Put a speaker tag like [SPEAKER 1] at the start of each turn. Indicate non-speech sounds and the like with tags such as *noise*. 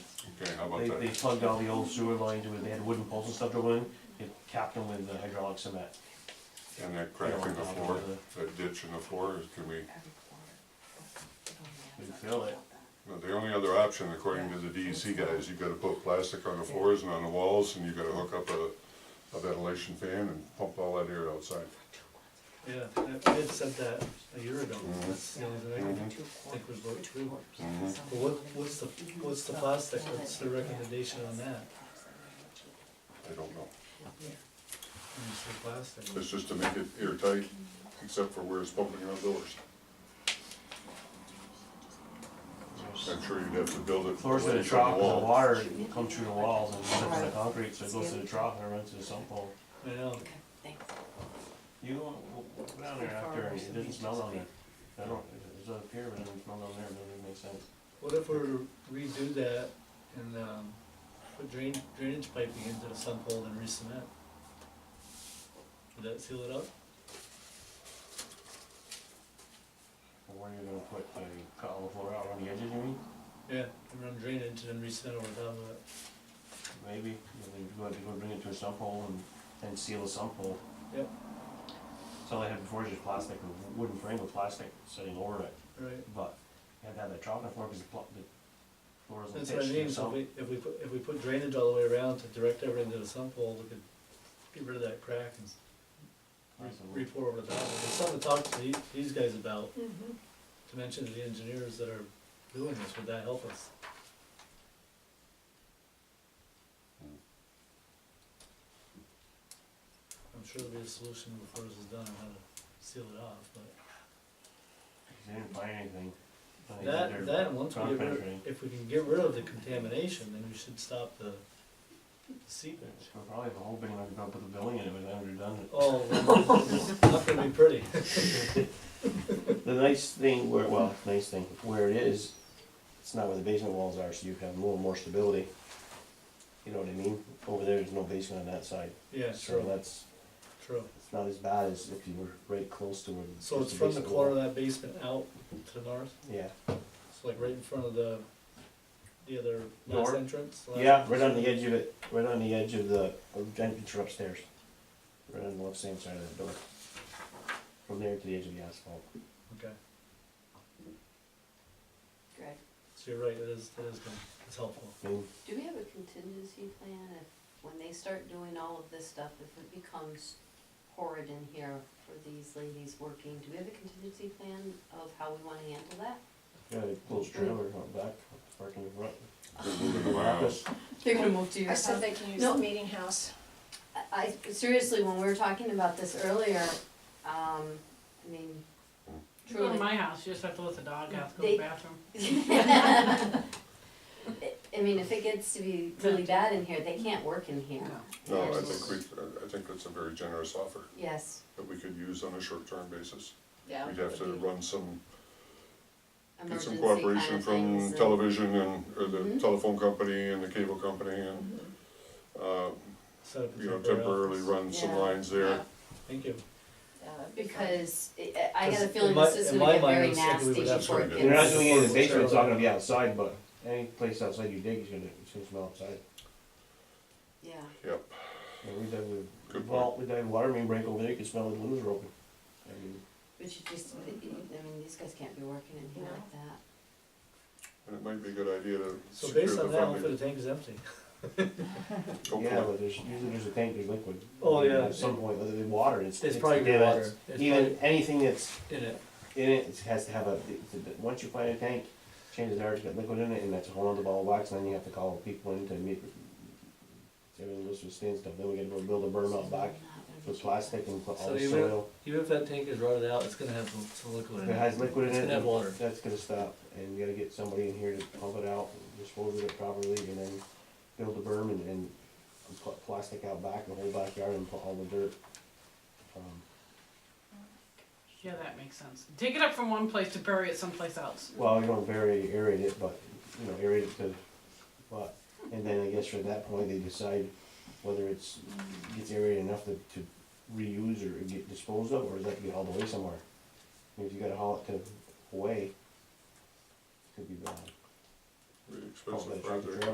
[SPEAKER 1] Okay, how about
[SPEAKER 2] They, they
[SPEAKER 1] that?
[SPEAKER 2] plugged all the old sewer lines with, they had wooden poles and stuff drilled in, they capped them with uh, hydraulic cement.
[SPEAKER 1] And that crack in the floor, that ditch in the floor, is can we,
[SPEAKER 2] We fill it.
[SPEAKER 1] well, the only other option according to the DEC guys, you gotta put plastic on the floors and on the walls and you gotta hook up a, a ventilation fan and pump all that air outside.
[SPEAKER 3] Yeah, I I had said that a year ago,
[SPEAKER 2] Mm-hmm.
[SPEAKER 3] that's the only thing I can
[SPEAKER 1] Mhm.
[SPEAKER 3] think was what to do.
[SPEAKER 1] Mhm.
[SPEAKER 3] But
[SPEAKER 4] Mm-hmm.
[SPEAKER 3] what, what's the, what's the plastic, what's the recommendation on that?
[SPEAKER 1] I don't know.
[SPEAKER 3] When you say plastic,
[SPEAKER 1] It's just to make it airtight, except for where it's pumping outdoors. I'm sure you'd have to build it.
[SPEAKER 2] Floors in the
[SPEAKER 1] away from
[SPEAKER 2] trough, and the
[SPEAKER 1] wall.
[SPEAKER 2] water comes through the walls and runs into the concrete, so it goes to the trough and runs to the sump hole.
[SPEAKER 3] I know,
[SPEAKER 2] You go go down there after, it didn't smell down there. I don't, it was up here, but it didn't smell down there, it doesn't make sense.
[SPEAKER 3] what if we were to redo that and, um, put drain, drainage piping into the sump hole and re-cement? Would that seal it up?
[SPEAKER 2] But Where are you gonna put, like, cut all the floor out around the edges, you mean?
[SPEAKER 3] Yeah, and run drainage and then re-cement over top of it,
[SPEAKER 2] Maybe, you know, you have to go bring it to a sump hole and, and seal the sump hole.
[SPEAKER 3] Yep.
[SPEAKER 2] So all I had before was just plastic, a wooden frame with plastic sitting over it,
[SPEAKER 3] right?
[SPEAKER 2] but you had to have that trough in the floor because the pl- the floor isn't
[SPEAKER 3] That's what I
[SPEAKER 2] pitched,
[SPEAKER 3] mean,
[SPEAKER 2] and
[SPEAKER 3] so
[SPEAKER 2] so,
[SPEAKER 3] if we, if we put, if we put drainage all the way around to direct everything to the sump hole, we could get rid of that crack and re- re-pour over the top. It's something to talk to the- these guys about,
[SPEAKER 4] Mm-hmm.
[SPEAKER 3] to mention to the engineers that are doing this, would that help us? I'm sure there'll be a solution before this is done, on how to seal it off, but
[SPEAKER 2] they didn't find anything. Then they did their
[SPEAKER 3] that, that, and once we
[SPEAKER 2] ground
[SPEAKER 3] get rid,
[SPEAKER 2] penetrating.
[SPEAKER 3] if we can get rid of the contamination, then we should stop the the seepage.
[SPEAKER 2] We'll probably have a whole building, like, up with a building in it, but then we're done.
[SPEAKER 3] Oh, well, *laughs* it's not gonna be pretty.
[SPEAKER 2] The nice thing where, well, nice thing, where it is, it's not where the basement walls are, so you have a little more stability. You know what I mean? Over there, there's no basement on that side,
[SPEAKER 3] Yeah,
[SPEAKER 2] so
[SPEAKER 3] true,
[SPEAKER 2] that's,
[SPEAKER 3] true.
[SPEAKER 2] it's not as bad as if you were right close to where. the-
[SPEAKER 3] So it's
[SPEAKER 2] just
[SPEAKER 3] from the
[SPEAKER 2] basement
[SPEAKER 3] corner of
[SPEAKER 2] wall.
[SPEAKER 3] that basement out to the north,
[SPEAKER 2] Yeah,
[SPEAKER 3] it's like right in front of the, the other last
[SPEAKER 2] Door?
[SPEAKER 3] entrance? last
[SPEAKER 2] yeah, right on
[SPEAKER 3] entrance?
[SPEAKER 2] the edge of it, right on the edge of the, of the entrance for upstairs. Right on the left hand side of that door. From there to the edge of the asphalt.
[SPEAKER 3] Okay,
[SPEAKER 4] Greg,
[SPEAKER 3] so you're right, it is, it is, gonna- it's helpful.
[SPEAKER 2] I mean,
[SPEAKER 4] do we have a contingency plan if, when they start doing all of this stuff, if it becomes horrid in here for these ladies working, do we have a contingency plan of how we wanna handle that?
[SPEAKER 2] yeah, they close trailer out back, parking in front.
[SPEAKER 1] They're moving to my house.
[SPEAKER 4] They're gonna move to
[SPEAKER 5] I said they can use
[SPEAKER 4] No.
[SPEAKER 5] the meeting house.
[SPEAKER 4] I, I- seriously, when we were talking about this earlier, um, I mean,
[SPEAKER 6] You Go to
[SPEAKER 4] truly.
[SPEAKER 6] my house, you just have to let the dog out, to go
[SPEAKER 4] They-
[SPEAKER 6] to the bathroom.
[SPEAKER 4] I I mean, if it gets to be really bad in here, they can't work in here.
[SPEAKER 1] No, I think we, I- I think that's a very generous offer
[SPEAKER 4] Yes,
[SPEAKER 1] that we could use on a short-term basis.
[SPEAKER 4] yeah.
[SPEAKER 1] We'd have to run some get
[SPEAKER 4] emergency
[SPEAKER 1] some
[SPEAKER 4] kind
[SPEAKER 1] cooperation
[SPEAKER 4] of things
[SPEAKER 1] from
[SPEAKER 4] and-
[SPEAKER 1] television and, or the
[SPEAKER 4] Mhm.
[SPEAKER 1] telephone company and the cable company and, uh,
[SPEAKER 3] Set up a
[SPEAKER 1] you know,
[SPEAKER 3] temporary
[SPEAKER 1] temporarily
[SPEAKER 3] office.
[SPEAKER 1] run some
[SPEAKER 4] Yeah.
[SPEAKER 1] lines there.
[SPEAKER 3] Thank you.
[SPEAKER 4] Because I- I got a
[SPEAKER 3] 'Cause
[SPEAKER 4] feeling
[SPEAKER 3] in my-
[SPEAKER 4] this is
[SPEAKER 3] in
[SPEAKER 4] gonna
[SPEAKER 3] my
[SPEAKER 4] get very
[SPEAKER 3] mind, I was
[SPEAKER 4] nasty
[SPEAKER 3] thinking we would have
[SPEAKER 4] before it
[SPEAKER 1] to-
[SPEAKER 4] gets.
[SPEAKER 2] You're not doing it in the
[SPEAKER 3] It's-
[SPEAKER 2] basement, it's not gonna be outside, but any place outside you dig is gonna, it's gonna smell outside.
[SPEAKER 4] Yeah,
[SPEAKER 1] Yep,
[SPEAKER 2] And we dug the,
[SPEAKER 1] Good
[SPEAKER 2] well, we dug a water main break over there, you could smell the windows were open. I mean,
[SPEAKER 4] but you just, I mean, these guys can't be working in here like that.
[SPEAKER 1] and it might be a good idea to
[SPEAKER 3] So
[SPEAKER 1] secure
[SPEAKER 3] based
[SPEAKER 1] the
[SPEAKER 3] on that, hopefully
[SPEAKER 1] funding.
[SPEAKER 3] the tank is empty.
[SPEAKER 2] Yeah,
[SPEAKER 1] Hopefully,
[SPEAKER 2] but there's, usually there's a tank, there's liquid.
[SPEAKER 3] Oh, yeah.
[SPEAKER 2] At some point, whether it's water, it's.
[SPEAKER 3] It's probably
[SPEAKER 2] yeah,
[SPEAKER 3] water.
[SPEAKER 2] it's-
[SPEAKER 3] It's
[SPEAKER 2] Even, anything that's
[SPEAKER 3] In it.
[SPEAKER 2] in it, it has to have a, it's a- once you find a tank, chances are it's got liquid in it, and that's a whole other ball of wax, and then you have to call people in to meet. Everything goes to a standstill, then we gotta go build a berm out back with plastic and put all
[SPEAKER 3] So
[SPEAKER 2] the
[SPEAKER 3] even-
[SPEAKER 2] soil.
[SPEAKER 3] Even if that tank is rotted out, it's gonna have some, some liquid
[SPEAKER 2] If
[SPEAKER 3] in
[SPEAKER 2] it
[SPEAKER 3] it.
[SPEAKER 2] has liquid in
[SPEAKER 3] It's
[SPEAKER 2] it.
[SPEAKER 3] gonna have water.
[SPEAKER 2] That's gonna stop, and you gotta get somebody in here to pump it out, and dispose of it properly, and then build the berm and, and put plastic out back, the whole backyard, and put all the dirt. Um,
[SPEAKER 6] Yeah, that makes sense. Dig it up from one place to bury it someplace else.
[SPEAKER 2] Well, you don't very aerate it, but, you know, aerate it to, but, and then I guess from that point, they decide whether it's, gets aerated enough to, to reuse or get disposed of, or does that get all the way somewhere? If you gotta haul it to Hawaii, it could be bad.
[SPEAKER 1] really
[SPEAKER 2] Haul it by
[SPEAKER 1] expensive
[SPEAKER 2] truck or
[SPEAKER 1] project.
[SPEAKER 2] trailer.